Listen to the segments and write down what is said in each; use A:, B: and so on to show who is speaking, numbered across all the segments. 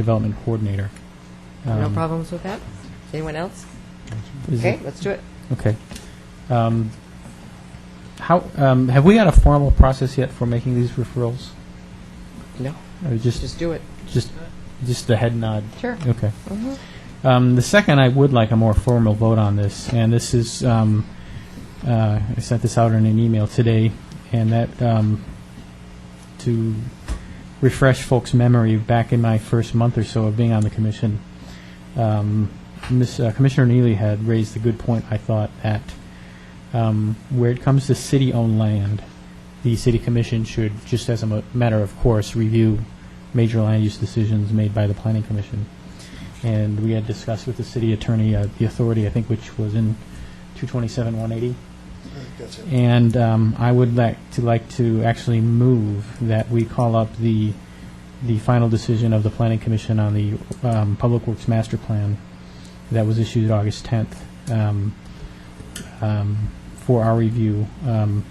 A: Development Coordinator.
B: No
A: Um,
B: problems with that? Anyone else?
A: is
B: Okay,
A: it-
B: let's do it.
A: Okay. Um, How, um, have we got a formal process yet for making these referrals?
B: No,
A: Or just,
B: just do it.
A: just, just a head nod?
B: Sure.
A: Okay. Um, The second, I would like a more formal vote on this, and this is, um, uh, I sent this out in an email today, and that, um, to refresh folks' memory, back in my first month or so of being on the commission, um, Miss- uh, Commissioner Neely had raised a good point, I thought, that um, where it comes to city-owned land, the city commission should, just as a mo- matter of course, review major land use decisions made by the planning commission. And we had discussed with the city attorney uh, the authority, I think, which was in 227 180.
C: That's it.
A: And um, I would like to like to actually move that we call up the the final decision of the Planning Commission on the um, Public Works Master Plan that was issued August 10th um, um, for our review. Um,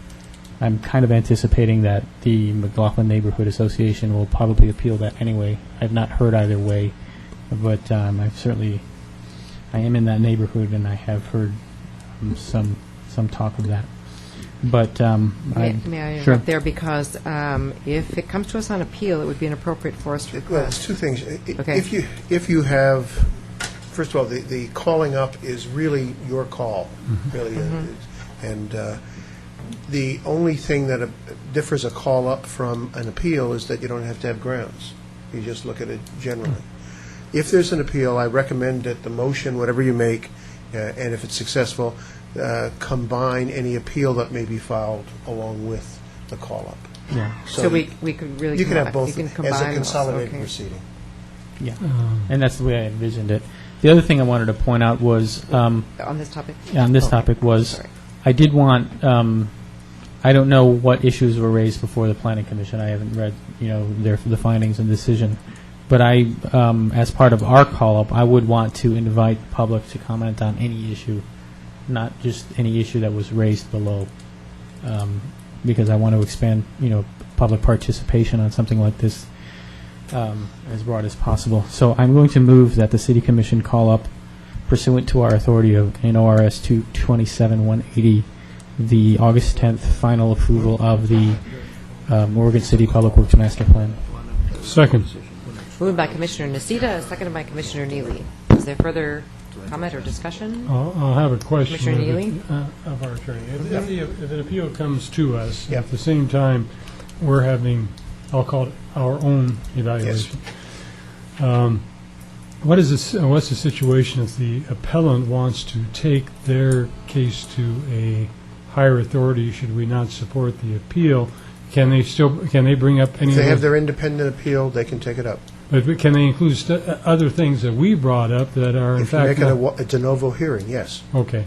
A: I'm kind of anticipating that the McLaughlin Neighborhood Association will probably appeal that anyway. I've not heard either way, but um, I've certainly I am in that neighborhood and I have heard um, some some talk of that. But um,
B: May
A: I,
B: may I
A: sure.
B: interrupt there, because um, if it comes to us on appeal, it would be inappropriate for us to
C: Well, it's
B: request.
C: two things. I- i-
B: Okay.
C: If you, if you have, first of all, the, the calling up is really your call,
B: Mm-hmm.
C: really. uh, And uh, the only thing that a- differs a call up from an appeal is that you don't have to have grounds. You just look at it generally.
B: Mm-hmm.
C: If there's an appeal, I recommend that the motion, whatever you make, uh, and if it's successful, uh, combine any appeal that may be filed along with the call up.
A: yeah.
B: So we we could really.
C: You can
B: combi-
C: have both
B: you can
C: as
B: combine
C: a
B: those,
C: consolidated
B: okay.
C: proceeding.
D: Mm-hmm.
A: Yeah, and that's the way I envisioned it. The other thing I wanted to point out was, um,
B: On this topic?
A: on this
B: Okay.
A: topic was,
B: Sorry.
A: I did want, um, I don't know what issues were raised before the planning commission. I haven't read, you know, their, the findings and decision. But I, um, as part of our call-up, I would want to invite the public to comment on any issue, not just any issue that was raised below, um, because I want to expand, you know, public participation on something like this um, as broad as possible. So I'm going to move that the city commission call up pursuant to our authority of NORS 227-180, the August 10th final approval of the um, Oregon City Public Works Master Plan.
D: Second.
B: Moved by Commissioner Nocita, seconded by Commissioner Neely. Is there further comment or discussion?
D: I'll, I'll have a question.
B: Commissioner
D: of it-
B: Neely?
D: uh, Of our attorney. If, if the- if an appeal comes to us,
C: Yep.
D: at the same time, we're having, I'll call it our own evaluation. Um, What is this, uh, what's the situation if the appellant wants to take their case to a higher authority? Should we not support the appeal? Can they still, can they bring up any?
C: If they
D: other-
C: have their independent appeal, they can take it up.
D: But we- can they include st- uh, other things that we brought up that are in
C: If you
D: fact?
C: make it a
D: not-
C: wa- a de novo hearing, yes.
D: Okay.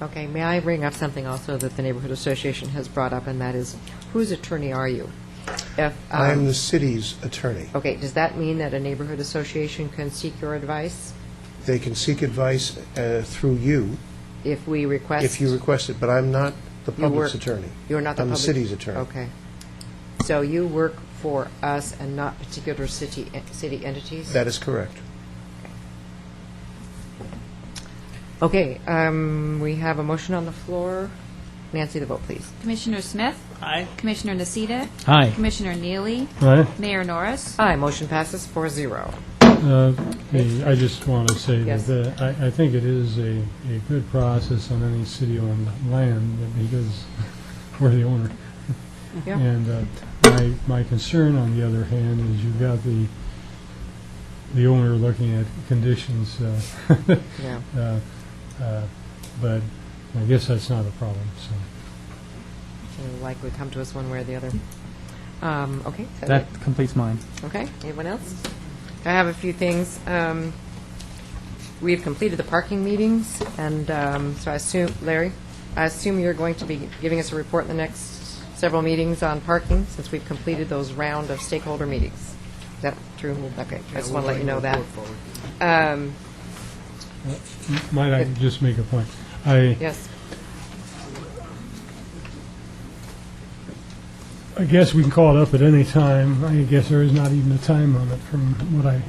B: Okay, may I bring up something also that the Neighborhood Association has brought up, and that is, whose attorney are you? If, um,
C: I am the city's attorney.
B: Okay, does that mean that a neighborhood association can seek your advice
C: They can seek advice uh, through you
B: if we request?
C: if you request it, but I'm not the
B: You work-
C: public's attorney.
B: You're not the
C: I'm the
B: public?
C: city's attorney.
B: Okay. So you work for us and not particular city, eh, city entities?
C: That is correct.
B: Okay, um, we have a motion on the floor. Nancy, the vote, please.
E: Commissioner Smith? Aye. Commissioner Nocita?
A: Aye.
E: Commissioner Neely?
D: All right.
E: Mayor Norris?
B: Aye, motion passes four zero.
D: Uh, hey, I just want to say
B: Yes.
D: that uh, I I think it is a a good process on any city-owned land because we're the owner.
B: Yeah.
D: And uh, my my concern, on the other hand, is you've got the the owner looking at conditions, uh,
B: Yeah.
D: uh, uh, but I guess that's not a problem, so.
B: It'll likely come to us one way or the other. Um, Okay, is that it?
A: That completes mine.
B: Okay, anyone else? I have a few things. Um, We've completed the parking meetings, and um, so I assume, Larry, I assume you're going to be giving us a report in the next several meetings on parking, since we've completed those round of stakeholder meetings. Is that true? Okay, I just want to let you know that. Um,
D: Might I just make a point? I
B: Yes,
D: I guess we can call it up at any time. I guess there is not even a time limit from what I